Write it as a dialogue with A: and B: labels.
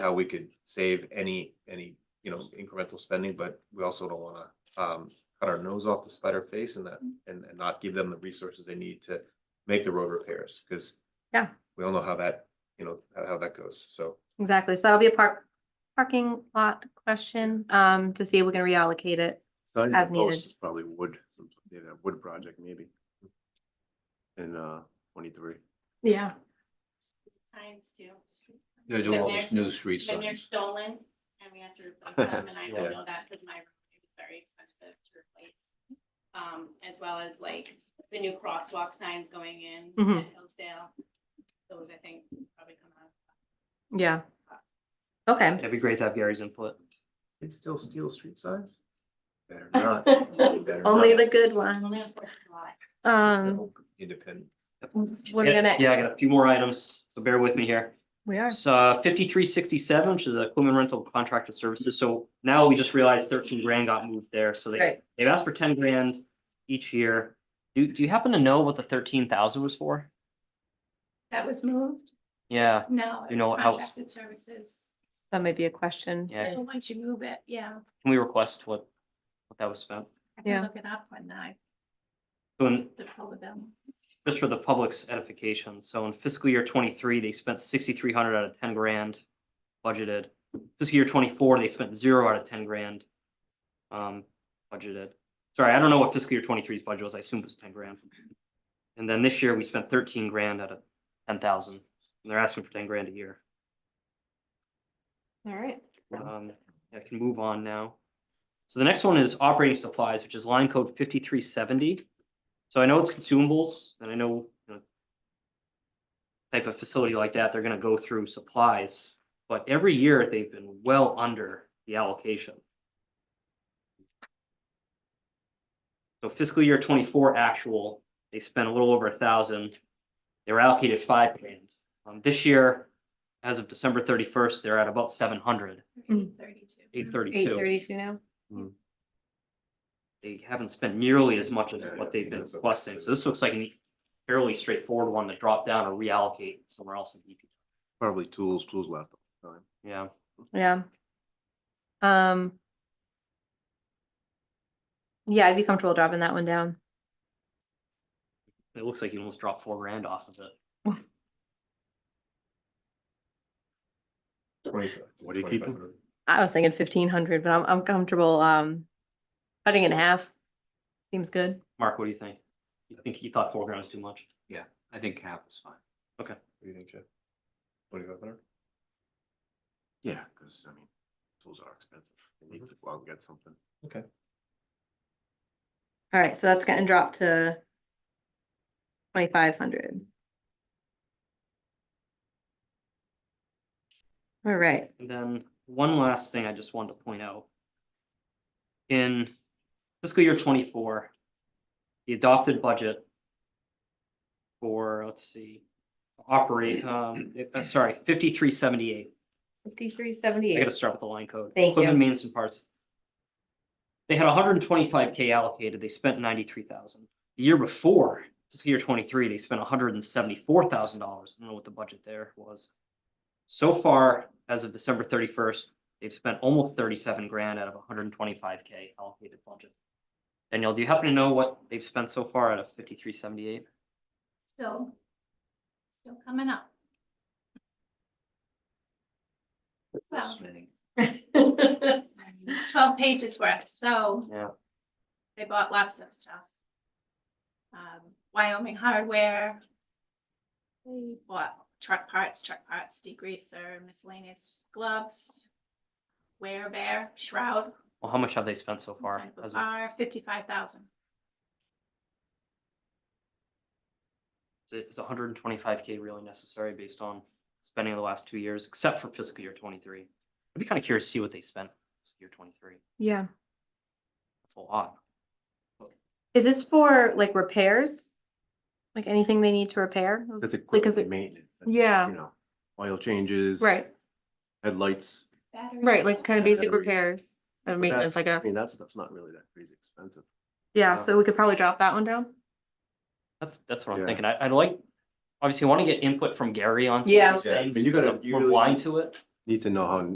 A: how we could save any, any, you know, incremental spending, but we also don't wanna um cut our nose off to spite our face and that,
B: Mm.
A: and and not give them the resources they need to make the road repairs, cause
B: Yeah.
A: we all know how that, you know, how how that goes, so.
B: Exactly, so that'll be a park, parking lot question, um, to see if we can reallocate it.
C: It's not even
B: As needed.
C: posts, it's Probably wood, some, they have a wood project maybe. In uh twenty-three.
B: Yeah.
D: Signs too.
E: They do
D: Because
E: all
D: they're
E: these
D: s-
E: new street
D: When they're
E: signs.
D: stolen and we have to replace them, and I
A: Yeah.
D: don't know that because my, it was very expensive to replace. Um, as well as like the new crosswalk signs going in
B: Mhm.
D: at Hillsdale. Those I think probably come out.
B: Yeah. Okay,
F: It'd be great to have Gary's input.
A: They still steal street signs?
C: Better not. Better
B: only
C: not.
B: the good
D: Only on
B: ones,
D: Fourth of July.
B: um,
A: Independent.
B: we're
F: Yeah,
B: gonna,
F: Yeah, I got a few more items, so bear with me here.
B: we are,
F: So uh, fifty-three sixty-seven, which is equipment rental contracted services, so now we just realized thirteen grand got moved there, so they,
B: right,
F: they've asked for ten grand each year. Do, do you happen to know what the thirteen thousand was for?
D: That was moved?
F: Yeah,
D: No.
F: You know what house?
D: Contracted services.
B: that might be a question.
F: yeah,
D: And Once you move it, yeah.
F: can we request what, what that was spent?
D: I
B: Yeah.
D: can look it up when I,
F: So in-
D: the pull of them.
F: just for the public's edification, so in fiscal year twenty-three, they spent sixty-three hundred out of ten grand budgeted. Fiscal year twenty-four, they spent zero out of ten grand um, budgeted. Sorry, I don't know what fiscal year 23's budget was, I assume it was ten grand. And then this year, we spent thirteen grand out of ten thousand, and they're asking for ten grand a year.
B: All right,
F: Um, I can move on now. So the next one is operating supplies, which is line code fifty-three seventy. So I know it's consumables, and I know, you know, type of facility like that, they're gonna go through supplies, but every year they've been well under the allocation. So fiscal year twenty-four actual, they spent a little over a thousand. They were allocated five grand. Um, this year, as of December thirty-first, they're at about seven hundred
B: Mm.
D: Thirty-two.
F: eight
B: eight
F: thirty-two,
B: thirty-two now,
F: they haven't spent nearly as much of what they've been
A: That's okay.
F: requesting, so this looks like a fairly straightforward one to drop down or reallocate somewhere else in E DP.
C: Probably tools, tools last a long time.
F: Yeah,
B: yeah. Um. Yeah, I'd be comfortable dropping that one down.
F: it looks like you almost dropped four grand off of it.
C: What are you keeping?
B: I was thinking fifteen hundred, but I'm, I'm comfortable, um, cutting it in half. Seems good.
F: Mark, what do you think? You think you thought four grand was too much?
E: I think half is fine.
A: What do you think, Jeff? Twenty-five hundred?
C: Yeah, because I mean, tools are expensive. They need to go out and get something.
B: All right, so that's getting dropped to twenty-five hundred. All right,
F: And then one last thing I just wanted to point out. In fiscal year twenty-four, the adopted budget for, let's see, operate, um, uh, sorry, fifty-three seventy-eight.
B: fifty-three
F: I
B: seventy-eight.
F: gotta start with the line code.
B: Thank you.
F: Equipment maintenance and parts. They had hundred and twenty-five K allocated, they spent ninety-three thousand. The year before, this year twenty-three, they spent hundred and seventy-four thousand dollars, I don't know what the budget there was. So far, as of December thirty-first, they've spent almost thirty-seven grand out of hundred and twenty-five K allocated budget. Danielle, do you happen to know what they've spent so far out of fifty-three seventy-eight?
D: Still, still coming up.
E: This
D: So.
E: many.
D: Twelve pages worth, so.
F: Yeah.
D: They bought lots of stuff. Um, Wyoming Hardware. They bought truck parts, truck parts, degreaser, miscellaneous gloves. Wear bear, shroud,
F: Well, how much have they spent so far? as of-
D: are fifty-five thousand.
F: Is it, is hundred and twenty-five K really necessary based on spending the last two years, except for fiscal year twenty-three? I'd be kind of curious to see what they spent fiscal year twenty-three.
B: Yeah,
F: That's a lot.
B: is this for like repairs? Like anything they need to repair?
C: That's
B: Because
C: equipment
B: it,
C: maintenance. that's,
B: yeah.
C: You know, oil changes.
B: right,
C: Headlights.
B: right, like kind of basic
C: Batteries.
B: repairs and
C: But
B: maintenance,
C: that's-
B: I guess.
C: I mean, that stuff's not really that crazy expensive.
B: Yeah, so we could probably drop that one down.
F: That's, that's what I'm
C: Yeah.
F: thinking. I, I'd like, obviously, I want to get input from Gary on some
B: Yeah.
F: of these
C: Yeah, I mean,
F: things.
C: you gotta-
F: because
C: you
F: We're
C: really-
F: blind to it.
A: need to know how